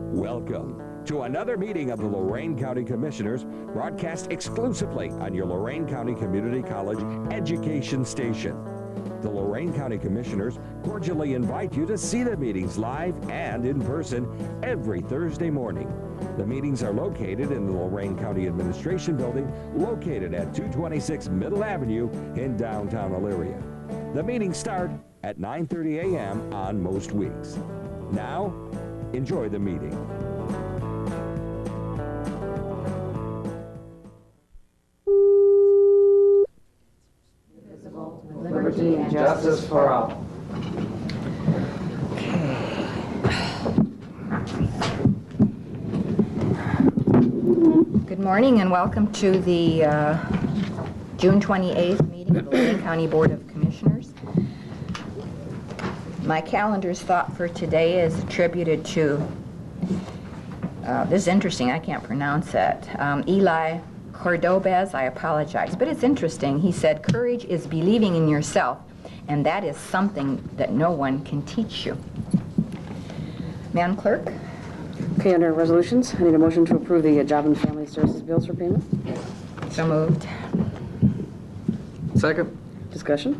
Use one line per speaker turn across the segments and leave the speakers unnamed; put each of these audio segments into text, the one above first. Welcome to another meeting of the Lorain County Commissioners, broadcast exclusively on your Lorain County Community College education station. The Lorain County Commissioners cordially invite you to see the meetings live and in person every Thursday morning. The meetings are located in the Lorain County Administration Building, located at 226 Middle Avenue in downtown Elyria. The meetings start at 9:30 a.m. on most weeks. Now, enjoy the meeting.
liberty and justice for all.
Good morning and welcome to the uh, June 28th meeting of the Lorraine County Board of Commissioners. My calendar's thought for today is attributed to, uh, this is interesting, I can't pronounce it, Um, Eli Cordobez, I apologize, but it's interesting. He said, "Courage is believing in yourself, and that is something that no one can teach you." Madam Clerk?
Okay, under resolutions, I need a motion to approve the uh, Job and Family Services bills for payment.
So moved.
Second.
Discussion?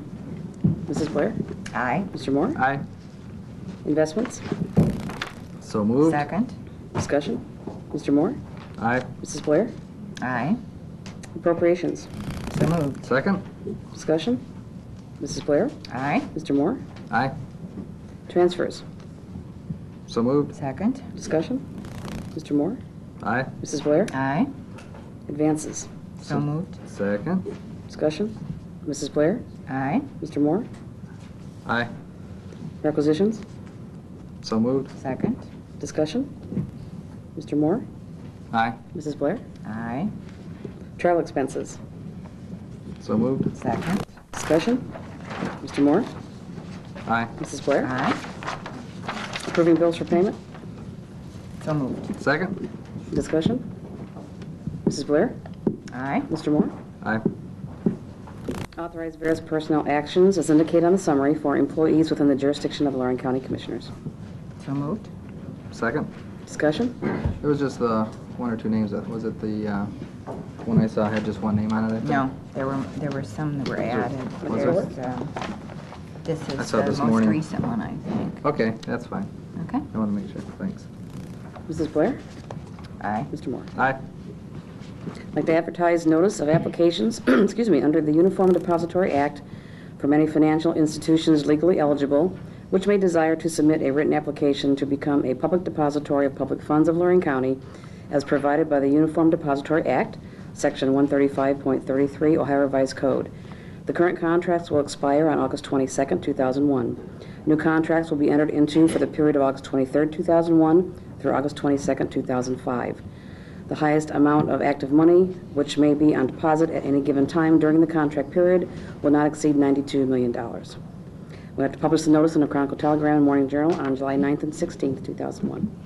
Mrs. Blair?
Aye.
Mr. Moore?
Aye.
Investments?
So moved.
Second?
Discussion? Mr. Moore?
Aye.
Mrs. Blair?
Aye.
Appropriations?
So moved.
Second.
Discussion? Mrs. Blair?
Aye.
Mr. Moore?
Aye.
Transfers?
So moved.
Second.
Discussion? Mr. Moore?
Aye.
Mrs. Blair?
Aye.
Advances?
So moved.
Second.
Discussion? Mrs. Blair?
Aye.
Mr. Moore?
Aye.
Requisitions?
So moved.
Second.
Discussion? Mr. Moore?
Aye.
Mrs. Blair?
Aye.
Travel expenses?
So moved.
Second.
Discussion? Mr. Moore?
Aye.
Mrs. Blair?
Aye.
Approving bills for payment?
So moved.
Second.
Discussion? Mrs. Blair?
Aye.
Mr. Moore?
Aye.
Authorize various personnel actions as indicated on the summary for employees within the jurisdiction of Lorraine County Commissioners.
So moved.
Second.
Discussion?
There was just the one or two names that, was it the, uh, one I saw had just one name on it? I think?
No, there were, there were some that were added.
was
There's, um, this
I
is
saw
the
this
most
morning.
recent one, I think.
Okay, that's fine.
Okay?
I want to make sure. Thanks.
Mrs. Blair?
Aye.
Mr. Moore?
Aye.
Like to advertise notice of applications, excuse me, under the Uniform Depository Act from any financial institutions legally eligible which may desire to submit a written application to become a public depository of public funds of Lorraine County as provided by the Uniform Depository Act, Section 135.33 Ohio Revised Code. The current contracts will expire on August 22, 2001. New contracts will be entered into for the period of August 23, 2001 through August 22, 2005. The highest amount of active money, which may be on deposit at any given time during the contract period, will not exceed $92 million. We have to publish the notice in the Chronicle Telegram and Morning Journal on July 9th and 16th, 2001.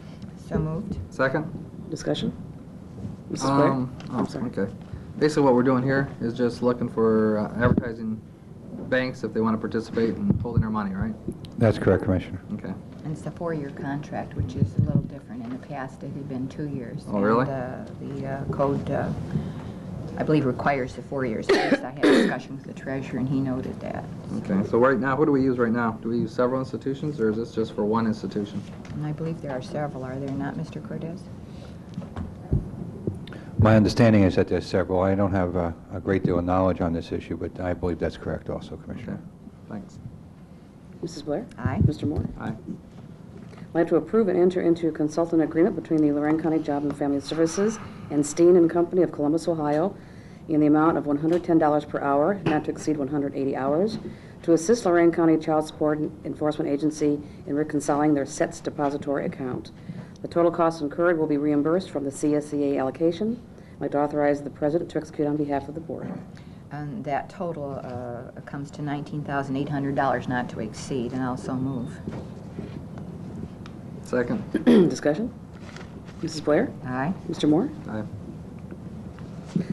So moved.
Second.
Discussion? Mrs. Blair?
Um,
I'm
oh,
sorry.
Okay. Basically, what we're doing here is just looking for uh, advertising banks if they want to participate in holding our money, right?
That's correct, Commissioner.
Okay.
And it's a four-year contract, which is a little different. In the past, it had been two years.
Oh, really?
And, uh, the uh, code, uh, I believe, requires the four years. At least I had a discussion with the treasurer, and he noted that.
Okay, so right now, who do we use right now? Do we use several institutions, or is this just for one institution?
And I believe there are several, are there not, Mr. Cordez?
My understanding is that there's several. I don't have uh, a great deal of knowledge on this issue, but I believe that's correct also,
Okay,
Commissioner.
thanks.
Mrs. Blair?
Aye.
Mr. Moore?
Aye.
I'd like to approve and enter into a consultant agreement between the Lorraine County Job and Family Services and Steen and Company of Columbus, Ohio, in the amount of $110 per hour, not to exceed 180 hours, to assist Lorraine County Child Support Enforcement Agency in reconciling their SETS depository account. The total costs incurred will be reimbursed from the CSEA allocation. I'd like to authorize the president to execute on behalf of the board.
And that total uh, comes to $19,800 not to exceed, and also move.
Second.
Discussion? Mrs. Blair?
Aye.
Mr. Moore?
Aye.